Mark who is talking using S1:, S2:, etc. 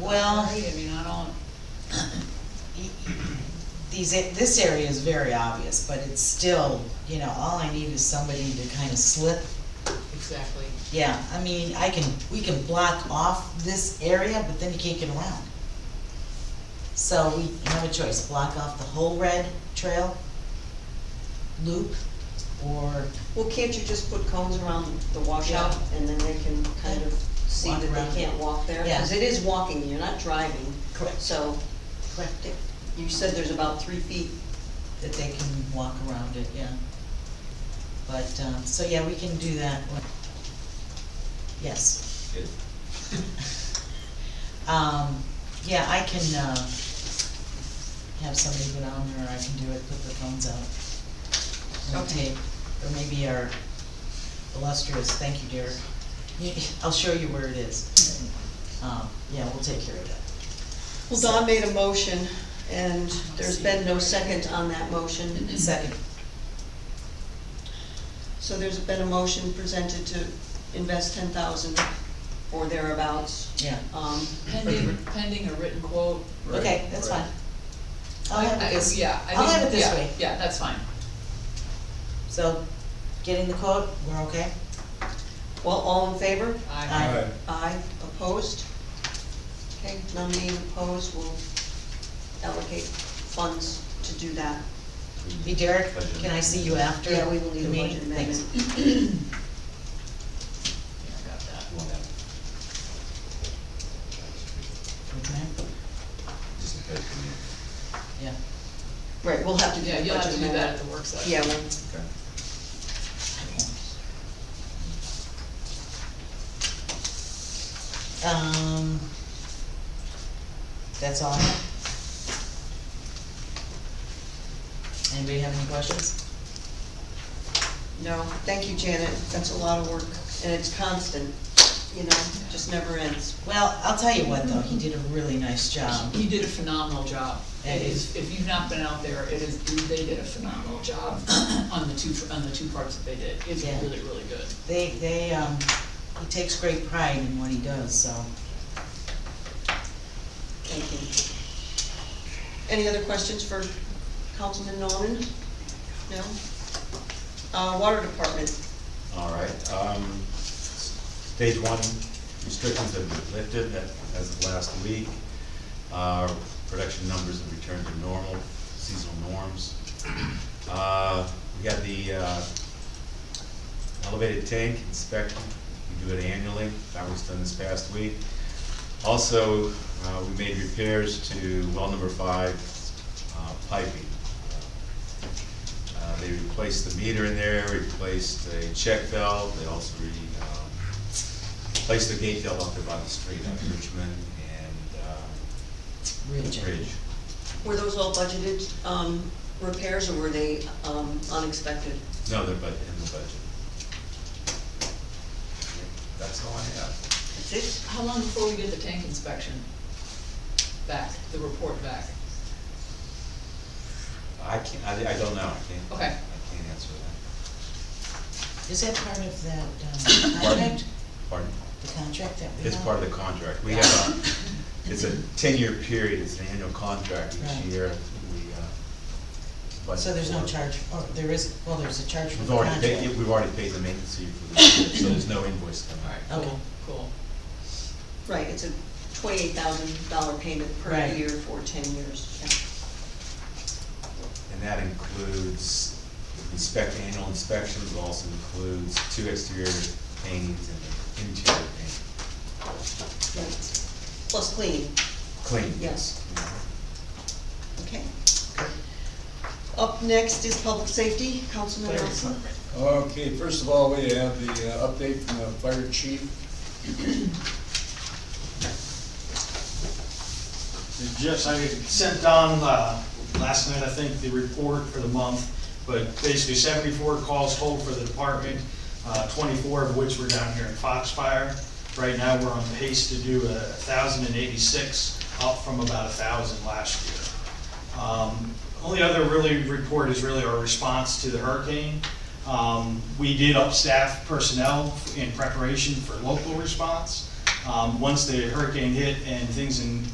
S1: Well-
S2: I mean, I don't,
S1: These, a- this area is very obvious, but it's still, you know, all I need is somebody to kind of slip.
S2: exactly.
S1: Yeah, I mean, I can, we can block off this area, but then you can't get around. So we have a choice, block off the whole red trail, loop, or
S3: Well, can't you just put cones around the washout and then they can kind of see
S1: Walk
S3: that
S1: around.
S3: they can't walk there?
S1: Yeah.
S3: Because it is walking, you're not driving,
S1: correct,
S3: so
S1: correct it,
S3: you said there's about three feet.
S1: that they can walk around it, yeah. But, um, so yeah, we can do that one. Yes.
S4: Good.
S1: Um, yeah, I can, uh, have somebody go down there, or I can do it, put the phones out. and
S3: Okay.
S1: tape, Or maybe our illustrious, thank you, Derek, You- I'll show you where it is. Um, yeah, we'll take care of that.
S3: Well, Don made a motion and there's been no second on that motion.
S1: Second,
S3: So there's been a motion presented to invest ten thousand or thereabouts.
S1: yeah,
S3: Um,
S2: Pending, pending a written quote.
S4: Right,
S1: okay, that's
S4: right.
S1: fine. I'll have
S2: I-
S1: it this,
S2: Yeah, I
S1: I'll
S2: mean,
S1: have it this
S2: yeah,
S1: way.
S2: Yeah, that's fine.
S1: so, getting the quote, we're okay?
S3: Well, all in favor?
S2: I,
S1: Aye.
S3: Aye, opposed? Okay, none being opposed, we'll allocate funds to do that.
S1: Hey Derek, can I see you after?
S3: Yeah, we will need
S1: the
S3: a
S1: meeting?
S3: budget
S1: Thanks.
S3: amendment.
S1: Uh,
S2: yeah, I got that.
S4: Well,
S1: Okay,
S4: just in case we need-
S1: yeah.
S3: Right, we'll have to do
S2: Yeah,
S3: the
S2: you'll have
S3: budget
S2: to do that at
S3: amendment.
S2: the work session.
S3: Yeah, well,
S4: Okay.
S1: Um, that's all I have. Anybody have any questions?
S3: no, thank you, Janet, that's a lot of work, and it's constant, you know, just never ends.
S1: Well, I'll tell you what though, he did a really nice job.
S2: Um, He did a phenomenal job. It
S1: It
S2: is, if you've not been out there, it is, they did a phenomenal job on the two, on the two parts that they did. It's
S1: Yeah.
S2: really, really good.
S1: They, they, um, he takes great pride in what he does, so.
S3: Thank you. Any other questions for Councilman Norman? No? Uh, Water Department,
S4: All right, um, stage one restrictions have been lifted that- as of last week. Uh, production numbers have returned to normal, seasonal norms. Uh, we got the, uh, elevated tank inspection, we do it annually, that was done this past week. Also, uh, we made repairs to well number five, uh, piping. Uh, They replaced the meter in there, replaced a check valve, they also re, um, replaced the gate valve up there by the street on Richmond and, um,
S1: Ridge.
S4: Ridge.
S3: were those all budgeted, um, repairs, or were they, um, unexpected?
S4: No, they're bud in the budget. That's all I have.
S3: That's it?
S2: How long before we get the tank inspection back, the report back?
S4: I can't, I, I don't know, I can't.
S2: Okay.
S4: I can't answer that.
S1: Is that part of that, um, contract,
S4: Pardon?
S1: the contract that we have?
S4: It's part of the contract. We have a, it's a ten-year period, it's an annual contract
S1: Right.
S4: each year. We, uh, budget
S1: So there's no
S4: for-
S1: charge, or there is, well, there's a charge for
S4: We've
S1: the
S4: already
S1: contract.
S4: paid, yeah, we've already paid the maintenance fee for this year, so there's no invoice coming.
S2: Alright,
S1: Okay.
S2: cool, cool.
S3: Right, it's a twenty-eight thousand dollar payment per
S1: Right.
S3: year for ten years. Yeah.
S4: And that includes inspect, annual inspections, also includes two exterior paintings and an interior paint.
S3: Right. Plus cleaning,
S4: Clean.
S3: yes, okay. Up next is public safety, Councilman
S1: Fire
S3: Nelson.
S1: department.
S5: Okay, first of all, we have the uh, update from the fire chief.
S6: Jeff's, I sent down uh, last night, I think, the report for the month, but basically seventy-four calls total for the department, uh, twenty-four of which were down here in Foxfire. Right now, we're on pace to do a thousand and eighty-six, up from about a thousand last year. Um, Only other really report is really our response to the hurricane. Um, We did up staff personnel in preparation for local response. Um, once the hurricane hit and things in